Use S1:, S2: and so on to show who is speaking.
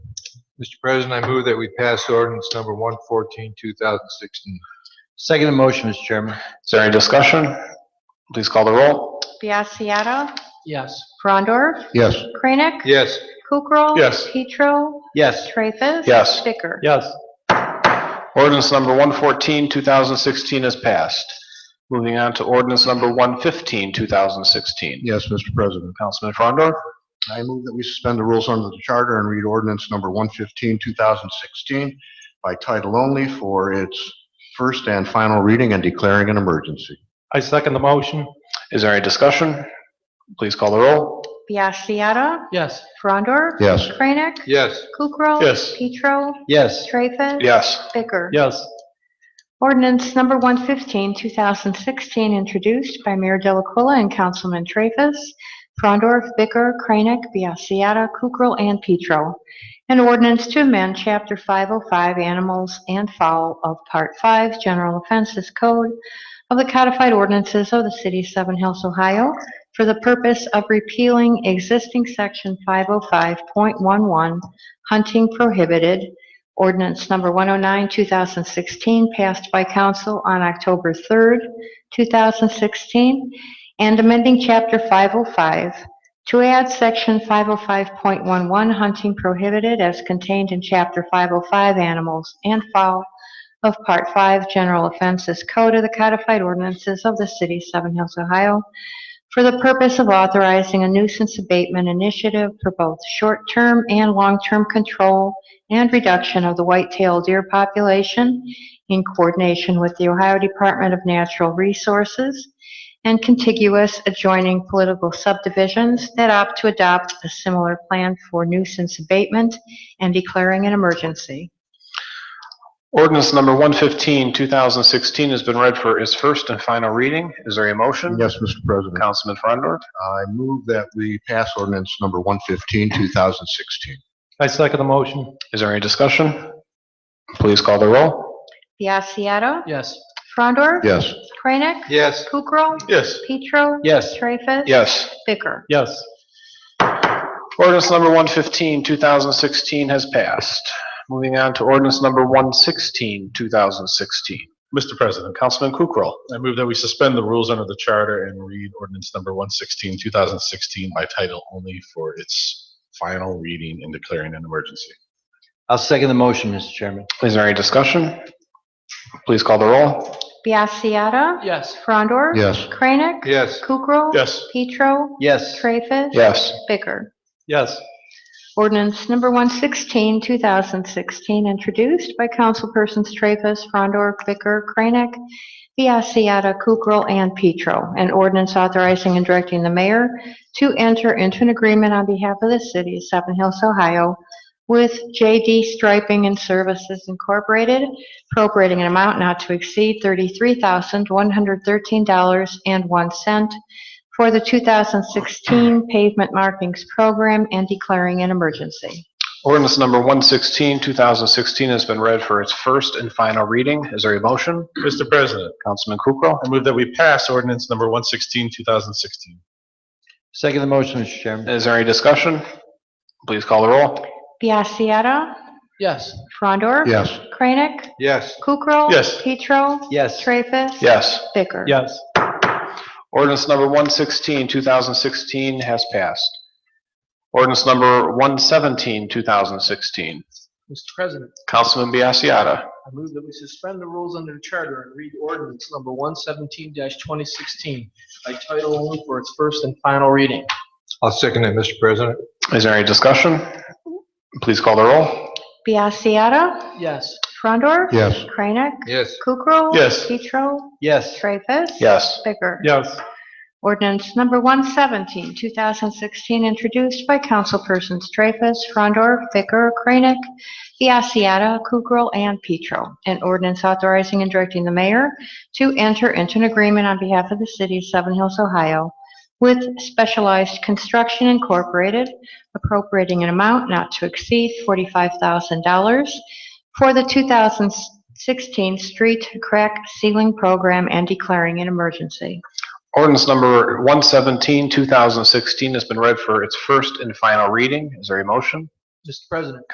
S1: Mr. President, I move that we pass ordinance number 114, 2016.
S2: Second the motion, Mr. Chairman.
S3: Is there any discussion? Please call the roll.
S4: Biassiata.
S2: Yes.
S4: Frondor.
S1: Yes.
S4: Kranek.
S1: Yes.
S4: Kukrow.
S3: Yes.
S4: Petro.
S2: Yes.
S4: Traffus.
S3: Yes.
S4: Bicker.
S2: Yes.
S3: Ordinance number 114, 2016 is passed. Moving on to ordinance number 115, 2016.
S5: Yes, Mr. President.
S3: Councilman Frondor,
S5: I move that we suspend the rules under the charter and read ordinance number 115, 2016 by title only for its first and final reading and declaring an emergency.
S2: I second the motion.
S3: is there any discussion? Please call the roll.
S4: Biassiata.
S2: Yes.
S4: Frondor.
S5: Yes.
S4: Kranek.
S1: Yes.
S4: Kukrow.
S3: Yes.
S4: Petro.
S2: Yes.
S4: Traffus.
S3: Yes.
S4: Bicker.
S2: Yes.
S4: Ordinance number 115, 2016, introduced by Mayor Delacuilla and Councilman Traffus, Frondorf, Bicker, Kranek, Biassiata, Kukrow, and Petro. An ordinance to amend Chapter 505 Animals and Fowl of Part 5 General Offenses Code of the Codified Ordinances of the City of Seven Hills, Ohio, for the purpose of repealing existing Section 505.11 Hunting Prohibited Ordinance number 109, 2016, passed by council on October 3rd, 2016, and amending Chapter 505 to add Section 505.11 hunting prohibited as contained in Chapter 505 animals and fowl of Part 5 General Offenses Code of the Codified Ordinances of the City of Seven Hills, Ohio, for the purpose of authorizing a nuisance abatement initiative for both short-term and long-term control and reduction of the white-tailed deer population in coordination with the Ohio Department of Natural Resources and contiguous adjoining political subdivisions that opt to adopt a similar plan for nuisance abatement and declaring an emergency.
S3: Ordinance number 115, 2016 has been read for its first and final reading. Is there a motion?
S5: Yes, Mr. President.
S3: Councilman Frondor,
S5: I move that we pass ordinance number 115, 2016.
S2: I second the motion.
S3: is there any discussion? Please call the roll.
S4: Biassiata.
S2: Yes.
S4: Frondor.
S5: Yes.
S4: Kranek.
S1: Yes.
S4: Kukrow.
S3: Yes.
S4: Petro.
S2: Yes.
S4: Traffus.
S3: Yes.
S4: Bicker.
S2: Yes.
S3: Ordinance number 115, 2016 has passed. Moving on to ordinance number 116, 2016.
S6: Mr. President,
S3: Councilman Kukrow.
S6: I move that we suspend the rules under the charter and read ordinance number 116, 2016 by title only for its final reading and declaring an emergency.
S2: I'll second the motion, Mr. Chairman.
S3: Is there any discussion? Please call the roll.
S4: Biassiata.
S2: Yes.
S4: Frondor.
S5: Yes.
S4: Kranek.
S1: Yes.
S4: Kukrow.
S6: Yes.
S4: Petro.
S2: Yes.
S4: Traffus.
S3: Yes.
S4: Bicker.
S2: Yes.
S4: Ordinance number 116, 2016, introduced by councilpersons Traffus, Frondor, Bicker, Kranek, Biassiata, Kukrow, and Petro. An ordinance authorizing and directing the mayor to enter into an agreement on behalf of the city of Seven Hills, Ohio, with JD Striping and Services Incorporated, appropriating an amount not to exceed $33,113.01 for the 2016 pavement markings program and declaring an emergency.
S3: Ordinance number 116, 2016 has been read for its first and final reading. Is there a motion?
S6: Mr. President,
S3: Councilman Kukrow.
S6: I move that we pass ordinance number 116, 2016.
S2: Second the motion, Mr. Chairman.
S3: Is there any discussion? Please call the roll.
S4: Biassiata.
S2: Yes.
S4: Frondor.
S5: Yes.
S4: Kranek.
S1: Yes.
S4: Kukrow.
S6: Yes.
S4: Petro.
S2: Yes.
S4: Traffus.
S3: Yes.
S4: Bicker.
S2: Yes.
S3: Ordinance number 116, 2016 has passed. Ordinance number 117, 2016.
S7: Mr. President,
S3: Councilman Biassiata.
S7: I move that we suspend the rules under the charter and read ordinance number 117-2016 by title only for its first and final reading.
S1: I'll second it, Mr. President.
S3: Is there any discussion? Please call the roll.
S4: Biassiata.
S7: Yes.
S4: Frondor.
S5: Yes.
S4: Kranek.
S1: Yes.
S4: Kukrow.
S6: Yes.
S4: Petro.
S2: Yes.
S4: Traffus.
S3: Yes.
S4: Bicker.
S2: Yes.
S4: Ordinance number 117, 2016, introduced by councilpersons Traffus, Frondor, Bicker, Kranek, Biassiata, Kukrow, and Petro. An ordinance authorizing and directing the mayor to enter into an agreement on behalf of the city of Seven Hills, Ohio, with Specialized Construction Incorporated appropriating an amount not to exceed $45,000 for the 2016 street crack ceiling program and declaring an emergency.
S3: Ordinance number 117, 2016 has been read for its first and final reading. Is there a motion?
S7: Mr. President,